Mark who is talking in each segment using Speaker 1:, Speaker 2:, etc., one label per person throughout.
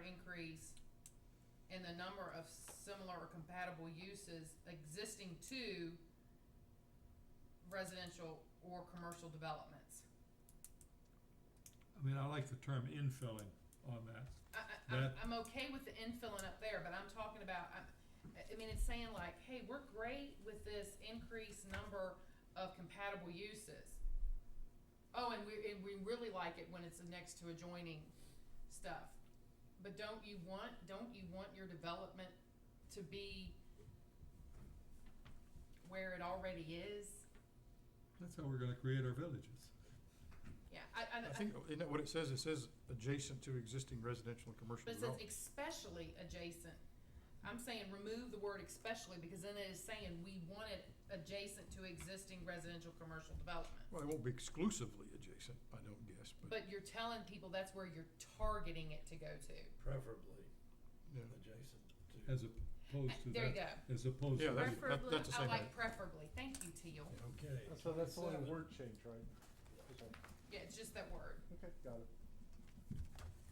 Speaker 1: increase in the number of similar or compatible uses existing to residential or commercial developments.
Speaker 2: I mean, I like the term infilling on that.
Speaker 1: I, I, I'm,
Speaker 2: That-
Speaker 1: I'm okay with the infilling up there, but I'm talking about, I'm, I, I mean, it's saying like, hey, we're great with this increased number of compatible uses. Oh, and we, and we really like it when it's next to adjoining stuff. But don't you want, don't you want your development to be where it already is?
Speaker 2: That's how we're gonna create our villages.
Speaker 1: Yeah, I, I,
Speaker 3: I think, isn't that what it says? It says adjacent to existing residential and commercial
Speaker 1: But it says
Speaker 3: development.
Speaker 1: especially adjacent. I'm saying remove the word especially because then it is saying we want it adjacent to existing residential commercial development.
Speaker 3: Well, it won't be exclusively adjacent, I don't guess, but,
Speaker 1: But you're telling people that's where you're targeting it to go to.
Speaker 4: preferably
Speaker 3: yeah.
Speaker 4: adjacent to.
Speaker 2: As opposed to
Speaker 1: There you
Speaker 2: that,
Speaker 1: go.
Speaker 2: as opposed
Speaker 3: Yeah,
Speaker 2: to that.
Speaker 3: that's-
Speaker 1: Preferably,
Speaker 3: that's the
Speaker 1: I
Speaker 3: same
Speaker 1: like
Speaker 3: thing.
Speaker 1: preferably. Thank you, Teal.
Speaker 4: Okay.
Speaker 5: So that's only a
Speaker 4: 27.
Speaker 5: word change, right? Okay,
Speaker 1: Yeah, it's just that word.
Speaker 5: Okay, got it.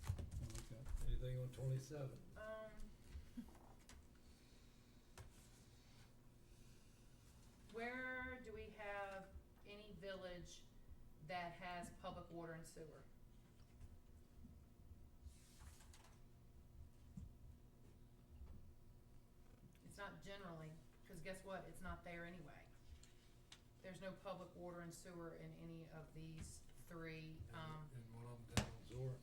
Speaker 2: I like that.
Speaker 4: Anything on twenty-seven?
Speaker 1: Um. Where do we have any village that has public water and sewer? It's not generally, cause guess what, it's not there anyway. There's no public water and sewer in any of these three, um,
Speaker 4: And one of them down in Zora.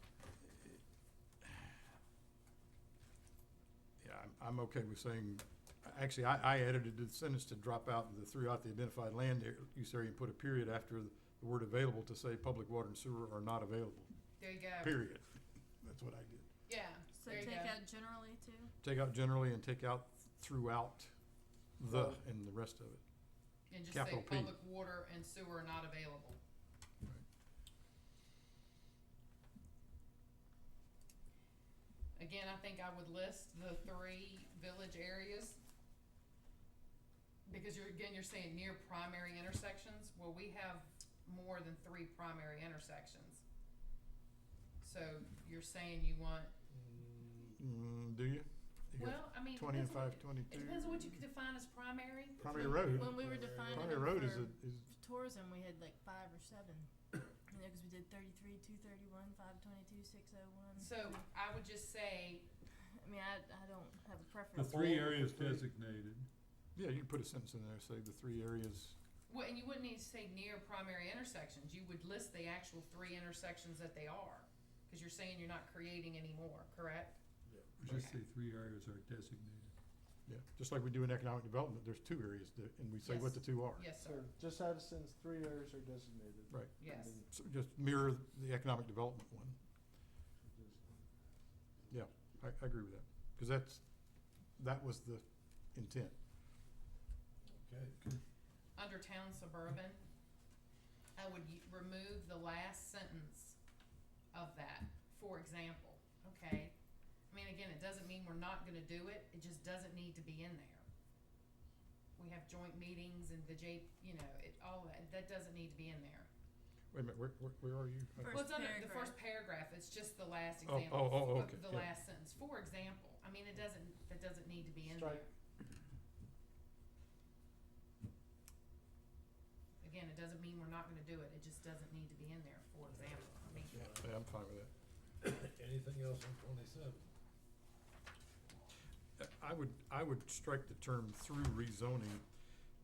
Speaker 3: Yeah, I'm, I'm okay with saying, actually, I, I edited the sentence to drop out the throughout the identified land area- use area and put a period after the word available to say public water and sewer are not available,
Speaker 1: there you go,
Speaker 3: period. That's what I did.
Speaker 1: yeah,
Speaker 6: So
Speaker 1: there you go.
Speaker 6: take out generally too?
Speaker 3: Take out generally and take out throughout the and the rest of it.
Speaker 1: And just say
Speaker 3: Capital P.
Speaker 1: public water and sewer are not available. Again, I think I would list the three village areas. Because you're, again, you're saying near primary intersections, well, we have more than three primary intersections. So you're saying you want,
Speaker 3: Mm, do you? You got
Speaker 1: well, I mean, it
Speaker 3: Twenty and
Speaker 1: depends on what,
Speaker 3: five twenty-two.
Speaker 1: it depends on what you define as primary.
Speaker 3: Primary road.
Speaker 6: When we were defining
Speaker 3: Primary
Speaker 6: it
Speaker 3: road is
Speaker 6: for
Speaker 3: a, is
Speaker 6: tourism, we had like five or seven. You know, 'cause we did 33, 231, 522, 601.
Speaker 1: So I would just say,
Speaker 6: I mean, I, I don't have a
Speaker 2: The
Speaker 6: preference.
Speaker 2: three
Speaker 3: Four or
Speaker 2: areas
Speaker 3: three.
Speaker 2: designated,
Speaker 3: Yeah, you can put a sentence in there, say the three areas,
Speaker 1: Well, and you wouldn't need to say near primary intersections, you would list the actual three intersections that they are, cause you're saying you're not creating any more, correct?
Speaker 2: we just say three areas are designated.
Speaker 3: yeah, just like we do in economic development, there's two areas that, and we say what the two are.
Speaker 1: Yes,
Speaker 5: So
Speaker 1: sir,
Speaker 5: just add a sentence, three areas are designated.
Speaker 3: Right.
Speaker 5: and
Speaker 1: yes,
Speaker 5: then
Speaker 3: So just mirror the economic development one,
Speaker 5: just-
Speaker 3: I, I agree with that, cause that's, that was the intent.
Speaker 4: Okay,
Speaker 1: under town suburban, I would y- remove the last sentence of that, for example, okay? I mean, again, it doesn't mean we're not gonna do it, it just doesn't need to be in there. We have joint meetings and the J, you know, it, all that, that doesn't need to be in there.
Speaker 3: Wait a minute, where, where, where are you? I-
Speaker 6: First
Speaker 1: Well, it's under the first paragraph, it's just the last
Speaker 3: Oh,
Speaker 1: example.
Speaker 3: oh, oh,
Speaker 1: of
Speaker 3: okay,
Speaker 1: The
Speaker 3: yeah.
Speaker 1: last sentence, for example, I mean, it doesn't, that doesn't need to be in
Speaker 5: Strike.
Speaker 1: there. Again, it doesn't mean we're not gonna do it, it just doesn't need to be in there, for example, I mean,
Speaker 3: Yeah, yeah, I'm fine with that.
Speaker 4: anything else on twenty-seven?
Speaker 3: Uh, I would, I would strike the term through rezoning,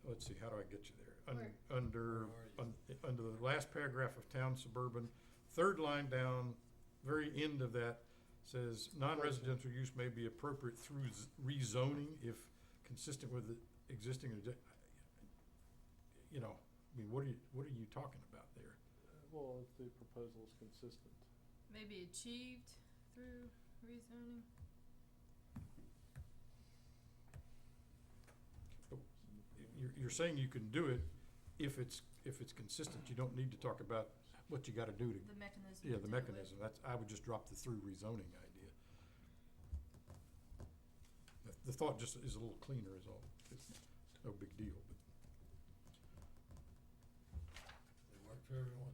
Speaker 3: let's see, how do I get you there? Un-
Speaker 1: Where?
Speaker 3: Under,
Speaker 4: Where are
Speaker 3: un- under the last paragraph of town suburban, third line down, very end of that says, non-residential use may be appropriate through z- rezoning if consistent with the existing, adj- you know, I mean, what are you, what are you talking about there?
Speaker 5: Well, if the proposal is consistent.
Speaker 6: Maybe achieved through rezoning.
Speaker 3: You're, you're saying you can do it if it's, if it's consistent, you don't need to talk about what you gotta do to,
Speaker 6: The mechanism.
Speaker 3: yeah,
Speaker 6: to
Speaker 3: the
Speaker 6: do it.
Speaker 3: mechanism, that's, I would just drop the through rezoning idea. The, the thought just is a little cleaner is all, it's no big deal, but.
Speaker 4: It worked for everyone.